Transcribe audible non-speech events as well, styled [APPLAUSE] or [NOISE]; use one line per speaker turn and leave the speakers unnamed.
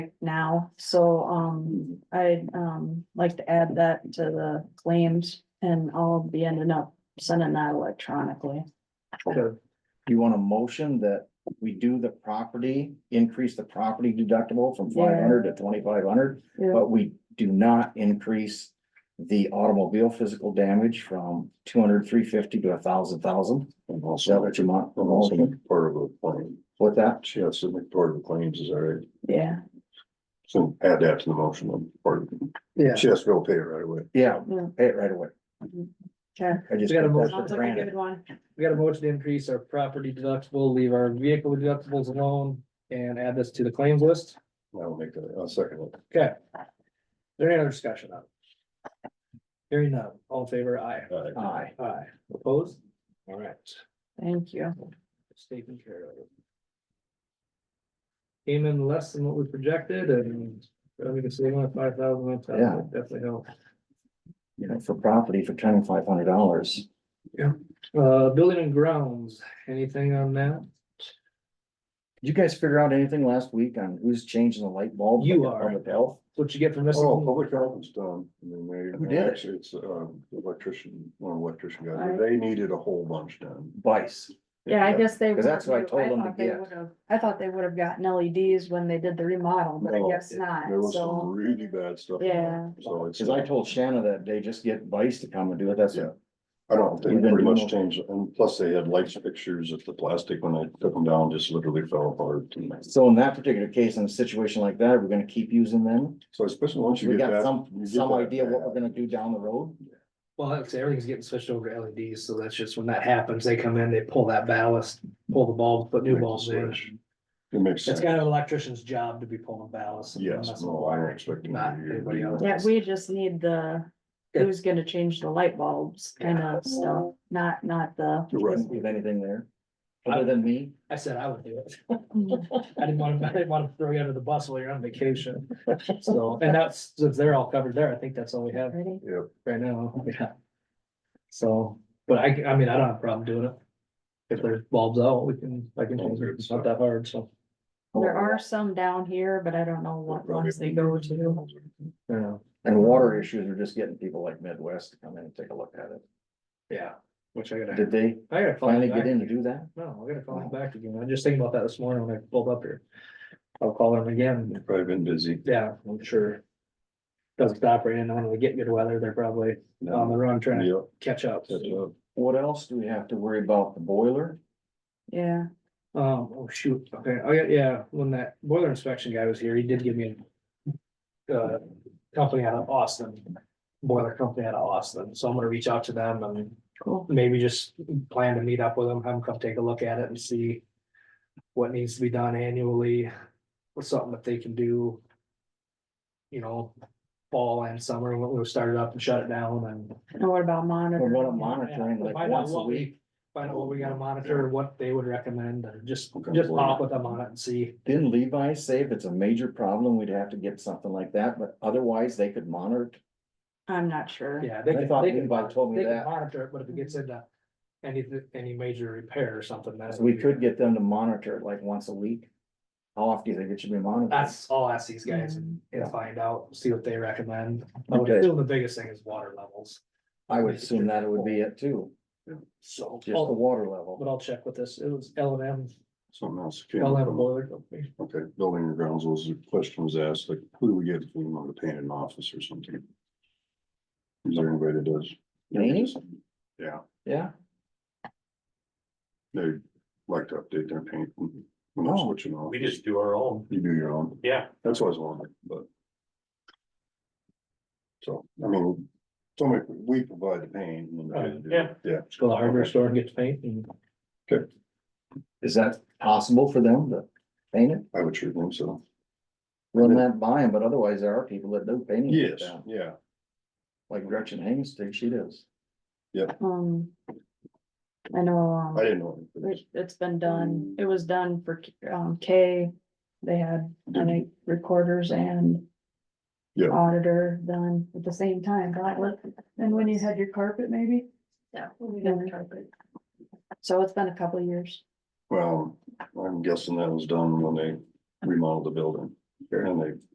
now, so, um, I'd, um, like to add that to the claims. And I'll be ending up sending that electronically.
Do You want a motion that we do the property, increase the property deductible from
Yeah.
five hundred to twenty-five hundred,
Yeah,
but we do not increase. The automobile physical damage from 200, 350 to a thousand, thousand,
I'm
is that
also,
what you want?
I'm also making part of the claim.
With that,
She has to make part of the claims is all right.
yeah,
So add that to the motion on part.
Yeah.
She has to go pay it right away.
yeah,
Yeah.
pay it right away.
okay.
I just.
We got a
took that
motion.
for
Sounds like a
granted.
good one.
We got a motion to increase our property deductible, leave our vehicle deductibles alone and add this to the claims list. Is
I'll make that, I'll second it.
there any other discussion on? it? Hearing none, all in favor, aye.
All right.
Aye.
Aye. Opposed? All right,
Thank you.
it's taken care of. Came in less than what we projected and uh, we can save on five thousand,
Yeah.
that definitely helps.
You know, for property for twenty-five hundred dollars,
Uh, building and grounds, anything on that?
did you guys figure out anything last week on who's changing the light bulb?
You
Like,
are.
Public health?
What you get from
Oh,
missing?
public health is done. I mean, they-
Oh,
Who did it?
actually, It's um electrician, one electrician guy.
Alright.
They needed a whole bunch done.
Vice.
Yeah, I guess they.
'Cause that's what I told them to
thought they
get.
would've- I thought they would have gotten LEDs when they did the remodel, but I
No,
guess not,
There was some
so.
really bad stuff.
Yeah.
So it's.
Cause I told Shanna that day, just get Vice to come and do it, that's it.
I don't
We've
think
been
pretty
doing
much
them.
changed, and plus they had lights pictures of the plastic when I took them down, just literally fell apart.
So in that particular case, in a situation like that, we're gonna keep using them.
So especially once you
We
get
got
that.
some,
you get
some
that
idea what we're
bad,
gonna do down the road.
Well, like I say, everything's getting switched over to LEDs, so that's just when that happens, they come in, they pull that ballast, pull the bulb, put new
Make the
bulbs in.
switch. It makes
It's
sense.
kind of an electrician's job to be pulling ballast. and
Yes,
that's
no,
why
I don't expect. them to
Not
be-
anybody else.
Yeah, we just need the,
Yeah.
who's gonna change the light bulbs kind of stuff, not, not the.
You're right.
Wouldn't leave anything there. Other than me,
I said I would do it.
Mm-hmm.
I didn't want to, [LAUGHS] I didn't want to throw you under the bus while you're on vacation. So, and that's, if they're all covered there, I think that's all we have
Ready?
Yep,
right now, yeah. So, but I, I mean, I don't have a problem doing it. If there's bulbs out, we can, I can, change it. it's not that hard, so.
There are some down here, but I don't know what
Probably.
ones they go to.
Yeah.
and water issues are just getting people like Midwest to come in and take a look at it.
Yeah, which I gotta,
Did they
I gotta. follow
finally
back.
get in to do that?
No, I gotta call him back again. I was just thinking about that this morning when I pulled up here. I'll call him again.
they've probably been busy.
Yeah, I'm sure. Doesn't stop raining. and When we get good weather, they're probably on the run trying to
Yep,
catch up.
that's, uh,
What else do we have to worry about? The boiler?
Yeah,
Um, oh shoot, okay, oh yeah, yeah, when that boiler inspection guy was here, he did give me. a Uh, company out of Austin, boiler company out of Austin, so I'm gonna reach out to them and
cool.
maybe just plan to meet up with them, have them come take a look at it and see. What needs to be done annually, or something that they can do. You know, fall and summer, when we start it up and shut it down and.
And what about
We're
monitoring?
gonna monitoring like
Find out
once a
what we-
week.
Find out what we gotta monitor, what they would recommend, and just,
Okay.
just pop with them on it and see.
Didn't Levi say if it's a major problem, we'd have to get something like that, but otherwise they could monitor? it?
I'm not sure.
Yeah, they
I
can,
thought
they can,
Levi
mon-
told me
they can
that.
monitor it, but if it gets into any, any major repair or something, that's.
We could get them to monitor it like once a week. How often do you think it should be monitored?
That's, I'll ask these guys
Yeah.
and find out, see what they recommend. I would
Mm-hmm. Okay.
assume the biggest thing is water levels,
I would assume that it would be it too,
so.
just the
I'll-
water level.
But I'll check with this, it was L and M,
something else. came up
L and M
on-
boiler company.
Okay, building and grounds, those are questions asked, like, who do we get if we want to paint an office or something? Is there anybody that does?
Painting?
Yeah,
Yeah,
they like to update their paint when they're
Oh.
switching off.
We just do our own,
You do your own,
yeah.
that's what I was wondering, but. So, I mean, somebody, we provide the paint. and then they do-
Yeah.
Yeah,
Just go to the hardware store and get the paint and
is that possible for them to paint it,
I would sure think so.
run that by them, but otherwise there are people that do painting. like
Yes,
that.
yeah,
Like Gretchen Hangstick, she does.
Um. I know, um.
I didn't know.
It, it's been done, it was done for, um, K, they had, I think, recorders and.
Mm-hmm. Yeah.
Auditor done at the same time, right? and when you had your carpet maybe,
Yeah, we got the carpet.
so it's been a couple of years.
Well, I'm guessing that was done when they remodeled the building. And they